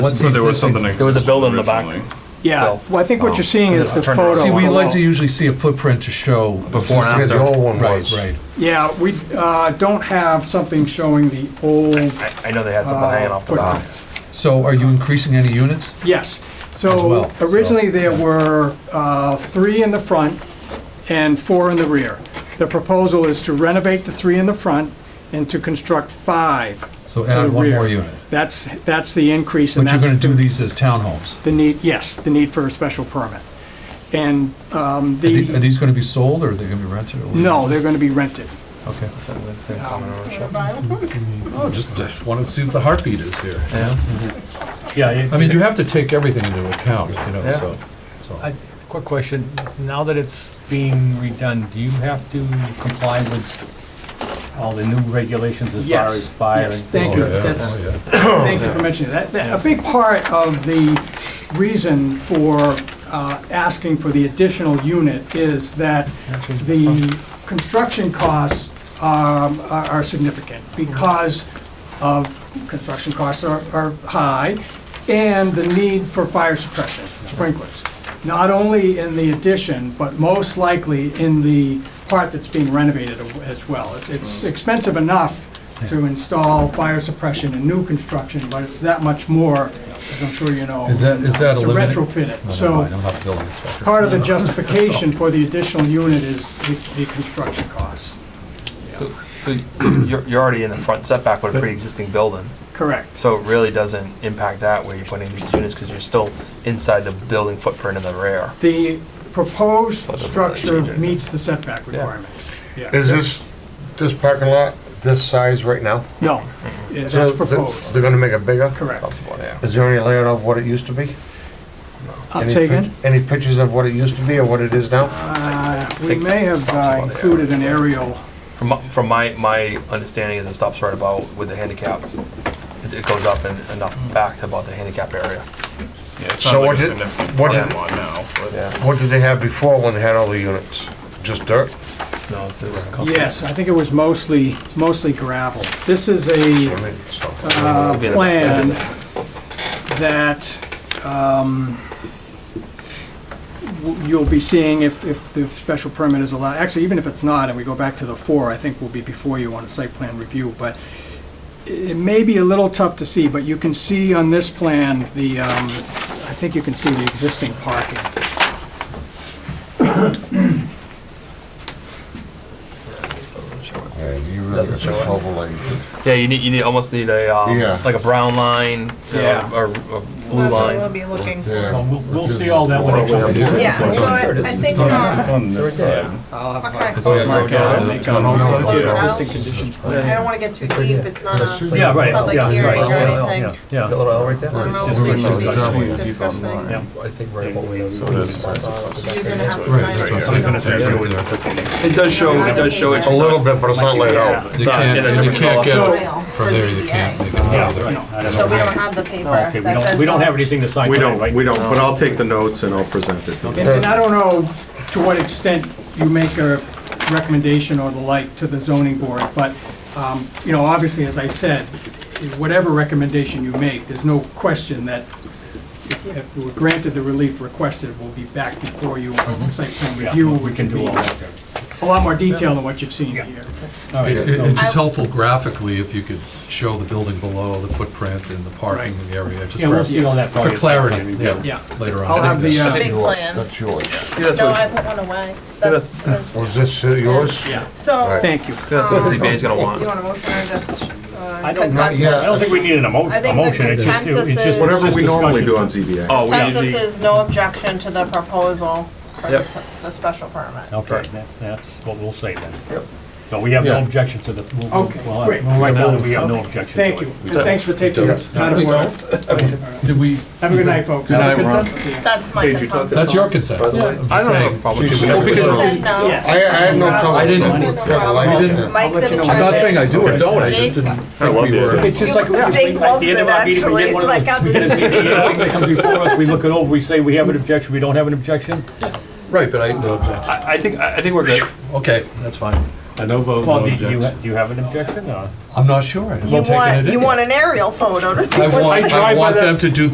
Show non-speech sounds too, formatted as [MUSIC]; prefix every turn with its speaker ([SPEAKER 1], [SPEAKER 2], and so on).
[SPEAKER 1] What's
[SPEAKER 2] So there was
[SPEAKER 1] existing-
[SPEAKER 2] something.
[SPEAKER 3] There was a building in the
[SPEAKER 2] existing
[SPEAKER 3] back.
[SPEAKER 2] originally.
[SPEAKER 4] Yeah,
[SPEAKER 3] Well,
[SPEAKER 4] well, I think what you're seeing is the
[SPEAKER 3] Turned around.
[SPEAKER 4] photo.
[SPEAKER 3] See,
[SPEAKER 5] See, we
[SPEAKER 3] we'd
[SPEAKER 5] like to usually see a footprint to show.
[SPEAKER 2] Before and after.
[SPEAKER 5] existing-
[SPEAKER 1] The old one
[SPEAKER 5] Right,
[SPEAKER 1] was.
[SPEAKER 5] right.
[SPEAKER 4] Yeah, we uh, don't have something showing the old,
[SPEAKER 3] I, I know they had something hanging off the back.
[SPEAKER 5] So are you increasing any units?
[SPEAKER 4] yes.
[SPEAKER 5] As
[SPEAKER 4] So
[SPEAKER 5] well, so-
[SPEAKER 4] originally, there were uh, three in the front and four in the rear. The proposal is to renovate the three in the front and to construct five.
[SPEAKER 5] So
[SPEAKER 4] to the
[SPEAKER 5] add one
[SPEAKER 4] rear.
[SPEAKER 5] more unit.
[SPEAKER 4] That's, that's the increase, and
[SPEAKER 5] But you're
[SPEAKER 4] that's
[SPEAKER 5] gonna do
[SPEAKER 4] the
[SPEAKER 5] these as townhomes.
[SPEAKER 4] the need, yes, the need for a special permit. And um,
[SPEAKER 5] Are the- are
[SPEAKER 4] the,
[SPEAKER 5] these gonna be sold or are they gonna be rented? or-
[SPEAKER 4] no, they're going to be rented.
[SPEAKER 5] Okay.
[SPEAKER 6] Oh, just wanted to see what the heartbeat is here.
[SPEAKER 7] Yeah,
[SPEAKER 6] I mean, you have to take everything into account, you know,
[SPEAKER 3] Yeah.
[SPEAKER 6] so, so.
[SPEAKER 7] I- quick question. Now that it's being redone, do you have to comply with all the new regulations as far as
[SPEAKER 4] Yes,
[SPEAKER 7] fire?
[SPEAKER 4] yes,
[SPEAKER 7] and-
[SPEAKER 4] thank you.
[SPEAKER 6] Oh, yeah,
[SPEAKER 4] That's,
[SPEAKER 6] oh, yeah.
[SPEAKER 4] Thank you for mentioning that. That- A big part of the reason for uh, asking for the additional unit is that the construction costs um, are are significant because of, construction costs are are high, and the need for fire suppression, sprinklers. Not only in the addition, but most likely in the part that's being renovated as well. It's- It's expensive enough to install fire suppression in new construction, but it's that much more, as I'm sure you know.
[SPEAKER 5] Is that- is that
[SPEAKER 4] To
[SPEAKER 5] eliminate-
[SPEAKER 4] retrofit
[SPEAKER 5] No, never
[SPEAKER 4] it.
[SPEAKER 5] mind,
[SPEAKER 4] So
[SPEAKER 5] I'm not a building inspector.
[SPEAKER 4] part
[SPEAKER 5] [LAUGHS]
[SPEAKER 4] of the
[SPEAKER 6] [LAUGHS]
[SPEAKER 4] justification for the additional unit is the the construction costs.
[SPEAKER 3] So, so [CLEARS THROAT] you're, you're already in the front setback with a pre-existing building,
[SPEAKER 4] Correct.
[SPEAKER 3] so it really doesn't impact that where you're putting these units, because you're still inside the building footprint in the rear.
[SPEAKER 4] The proposed
[SPEAKER 3] So it doesn't really
[SPEAKER 4] structure
[SPEAKER 3] change anything.
[SPEAKER 4] meets the setback requirements. Yeah.
[SPEAKER 1] Is this, this parking lot this size right now?
[SPEAKER 4] No, yeah,
[SPEAKER 1] So
[SPEAKER 4] that's
[SPEAKER 1] they're-
[SPEAKER 4] proposed.
[SPEAKER 1] They're gonna make it bigger?
[SPEAKER 4] Correct.
[SPEAKER 3] Possible, yeah.
[SPEAKER 1] Is there any layout of what it used to be?
[SPEAKER 4] I'll
[SPEAKER 1] Any
[SPEAKER 4] take
[SPEAKER 1] pic- Any pictures of what it used to be or what it is now?
[SPEAKER 4] We may have uh, included an aerial.
[SPEAKER 3] From, my- from my, my understanding is it stops right about with the handicap. It- It goes up and enough back to about the handicap area.
[SPEAKER 2] Yeah, it's
[SPEAKER 1] So
[SPEAKER 2] not
[SPEAKER 1] what
[SPEAKER 2] like a
[SPEAKER 1] did-
[SPEAKER 2] significant
[SPEAKER 1] what
[SPEAKER 2] parking
[SPEAKER 1] did-
[SPEAKER 2] lot now, but.
[SPEAKER 3] Yeah.
[SPEAKER 1] What did they have before when they had all the units? Just dirt?
[SPEAKER 3] No, it's, it's
[SPEAKER 4] Yes, I think it was mostly, mostly gravel. This is a
[SPEAKER 1] I mean, so-
[SPEAKER 4] uh, plan that um, w- you'll be seeing if, if the special permit is allowed. Actually, even if it's not, and we go back to the four, I think we'll be before you on a site plan review, but i- it may be a little tough to see, but you can see on this plan, the, um, I think you can see the existing parking.
[SPEAKER 1] Yeah, you really got some overlay.
[SPEAKER 3] Yeah, you need, you need, almost need a, um,
[SPEAKER 1] Yeah.
[SPEAKER 3] like a brown line, you know,
[SPEAKER 4] Yeah.
[SPEAKER 3] or a blue
[SPEAKER 8] That's what we'll
[SPEAKER 3] line.
[SPEAKER 8] be looking for.
[SPEAKER 6] Oh,
[SPEAKER 1] Yeah.
[SPEAKER 7] Well, We'll, we'll see all that when it comes.
[SPEAKER 8] Yeah, so I I think,
[SPEAKER 2] It's
[SPEAKER 8] um,
[SPEAKER 2] on this side.
[SPEAKER 8] okay.
[SPEAKER 6] Oh, yeah,
[SPEAKER 8] Close
[SPEAKER 6] it's on- it's on
[SPEAKER 1] Oh,
[SPEAKER 6] all sides?
[SPEAKER 8] it
[SPEAKER 2] Yeah.
[SPEAKER 8] out.
[SPEAKER 4] conditions
[SPEAKER 8] I don't wanna get too deep, it's not a
[SPEAKER 7] Yeah, right,
[SPEAKER 8] Public
[SPEAKER 7] yeah.
[SPEAKER 8] hearing or
[SPEAKER 7] yeah,
[SPEAKER 8] anything.
[SPEAKER 7] yeah, Yeah.
[SPEAKER 3] Got a little L right there?
[SPEAKER 8] I don't know if
[SPEAKER 7] Just
[SPEAKER 8] we
[SPEAKER 7] leave
[SPEAKER 8] should
[SPEAKER 7] it
[SPEAKER 8] be
[SPEAKER 7] as a
[SPEAKER 2] driveway.
[SPEAKER 8] discussing. You're
[SPEAKER 7] Yeah.
[SPEAKER 3] I think right
[SPEAKER 8] gonna have
[SPEAKER 6] Right,
[SPEAKER 8] to sign
[SPEAKER 6] that's
[SPEAKER 8] it.
[SPEAKER 6] what
[SPEAKER 8] so you don't-
[SPEAKER 3] It does show, it does show it's
[SPEAKER 1] A little bit, but it's not laid out.
[SPEAKER 6] You can't, and you can't
[SPEAKER 8] File
[SPEAKER 6] get,
[SPEAKER 8] for
[SPEAKER 6] from there, you can't.
[SPEAKER 8] ZBA.
[SPEAKER 6] you can't go there.
[SPEAKER 7] Yeah, I don't
[SPEAKER 8] So
[SPEAKER 7] know.
[SPEAKER 8] we don't have the
[SPEAKER 7] Okay,
[SPEAKER 8] paper
[SPEAKER 7] we
[SPEAKER 8] that
[SPEAKER 7] don't,
[SPEAKER 8] says.
[SPEAKER 7] we don't have anything to sign
[SPEAKER 9] We
[SPEAKER 7] tonight,
[SPEAKER 9] don't,
[SPEAKER 7] right? um,
[SPEAKER 9] we don't, but I'll take the notes and I'll present it.
[SPEAKER 4] And and I don't know to what extent you make a recommendation or the like to the zoning board, but, um, you know, obviously, as I said, whatever recommendation you make, there's no question that if if we're granted the relief requested, we'll be back before you on site plan
[SPEAKER 7] Mm-hmm. Yeah,
[SPEAKER 4] review.
[SPEAKER 7] We can do all that.
[SPEAKER 4] A lot more detail than what you've seen here.
[SPEAKER 7] All right,
[SPEAKER 6] It-
[SPEAKER 7] so-
[SPEAKER 6] it- It's just helpful graphically if you could show the building below, the footprint and the parking
[SPEAKER 4] Right.
[SPEAKER 6] area, just
[SPEAKER 7] Yeah, we'll
[SPEAKER 6] for,
[SPEAKER 7] see all that. probably
[SPEAKER 6] for
[SPEAKER 7] at some
[SPEAKER 6] clarity,
[SPEAKER 7] point.
[SPEAKER 6] yeah,
[SPEAKER 4] Yeah.
[SPEAKER 6] later on.
[SPEAKER 4] I'll have the, uh,
[SPEAKER 8] Big plan.
[SPEAKER 1] That's yours.
[SPEAKER 8] No, I put one away. That's, that's-
[SPEAKER 1] Was this uh, yours?
[SPEAKER 4] Yeah,
[SPEAKER 8] so,
[SPEAKER 1] Right.
[SPEAKER 4] thank you.
[SPEAKER 3] That's what ZBA's gonna want.
[SPEAKER 8] you want a motion or just uh,
[SPEAKER 7] I don't-
[SPEAKER 1] Not yet.
[SPEAKER 7] I don't think we need an emo-
[SPEAKER 8] I think
[SPEAKER 7] a
[SPEAKER 8] the
[SPEAKER 7] motion. It's just-
[SPEAKER 8] consensus
[SPEAKER 7] it's just-
[SPEAKER 8] is-
[SPEAKER 9] Whatever
[SPEAKER 7] it's
[SPEAKER 9] we
[SPEAKER 7] just
[SPEAKER 9] normally
[SPEAKER 7] discussion.
[SPEAKER 9] do on ZBA.
[SPEAKER 3] Oh, we
[SPEAKER 8] Consensus
[SPEAKER 3] usually,
[SPEAKER 8] is no objection to the proposal for the
[SPEAKER 9] Yep.
[SPEAKER 8] s- the special permit.
[SPEAKER 7] Okay, that's, that's what we'll say then. So we have
[SPEAKER 6] Yeah.
[SPEAKER 7] no objection to the, we'll- we'll-
[SPEAKER 4] Okay,
[SPEAKER 7] we'll have-
[SPEAKER 4] great.
[SPEAKER 7] well, right now, we have no objection to it.
[SPEAKER 4] Thank you. And thanks for taking
[SPEAKER 1] Yeah.
[SPEAKER 4] the time to work.
[SPEAKER 6] Did we?
[SPEAKER 4] Have a good night, folks.
[SPEAKER 1] Good night, Ron.
[SPEAKER 8] That's my
[SPEAKER 9] Paige, you
[SPEAKER 8] consensus.
[SPEAKER 6] That's your consent.
[SPEAKER 3] I don't have a problem. with
[SPEAKER 6] Well,
[SPEAKER 3] it.
[SPEAKER 6] because-
[SPEAKER 8] You said no.
[SPEAKER 4] Yeah.
[SPEAKER 1] I, I had no trouble.
[SPEAKER 6] I didn't-
[SPEAKER 1] with it. I
[SPEAKER 6] I
[SPEAKER 1] liked it.
[SPEAKER 6] didn't-
[SPEAKER 8] Mike
[SPEAKER 4] I'll let you
[SPEAKER 8] didn't
[SPEAKER 4] know.
[SPEAKER 8] try
[SPEAKER 6] I'm
[SPEAKER 8] to.
[SPEAKER 6] not saying I do or don't, I
[SPEAKER 8] Jake-
[SPEAKER 6] just didn't
[SPEAKER 9] I
[SPEAKER 6] think
[SPEAKER 9] love
[SPEAKER 6] we
[SPEAKER 9] the
[SPEAKER 6] were.
[SPEAKER 7] It's just like, we- at
[SPEAKER 8] Jake loves
[SPEAKER 7] the end
[SPEAKER 8] it,
[SPEAKER 7] of our meeting, we
[SPEAKER 8] actually.
[SPEAKER 7] get
[SPEAKER 8] It's
[SPEAKER 7] one of [LAUGHS]
[SPEAKER 8] like, I'll
[SPEAKER 7] those,
[SPEAKER 8] just-
[SPEAKER 7] get a ZBA, that comes before us, we look it over, we say we have an objection, we don't have an objection.
[SPEAKER 6] Right, but I, no objection.
[SPEAKER 3] I I think, I I think we're good.
[SPEAKER 6] Okay, that's fine.
[SPEAKER 9] I know vote,
[SPEAKER 7] Well, do you, do you ha- do you have an objection or?
[SPEAKER 6] I'm not sure. I haven't
[SPEAKER 8] You
[SPEAKER 6] taken it
[SPEAKER 8] want,
[SPEAKER 6] in
[SPEAKER 8] you
[SPEAKER 6] yet.
[SPEAKER 8] want an aerial photo to see
[SPEAKER 6] I
[SPEAKER 8] what's
[SPEAKER 6] want, I
[SPEAKER 7] drive by
[SPEAKER 6] want
[SPEAKER 7] that-
[SPEAKER 6] them to do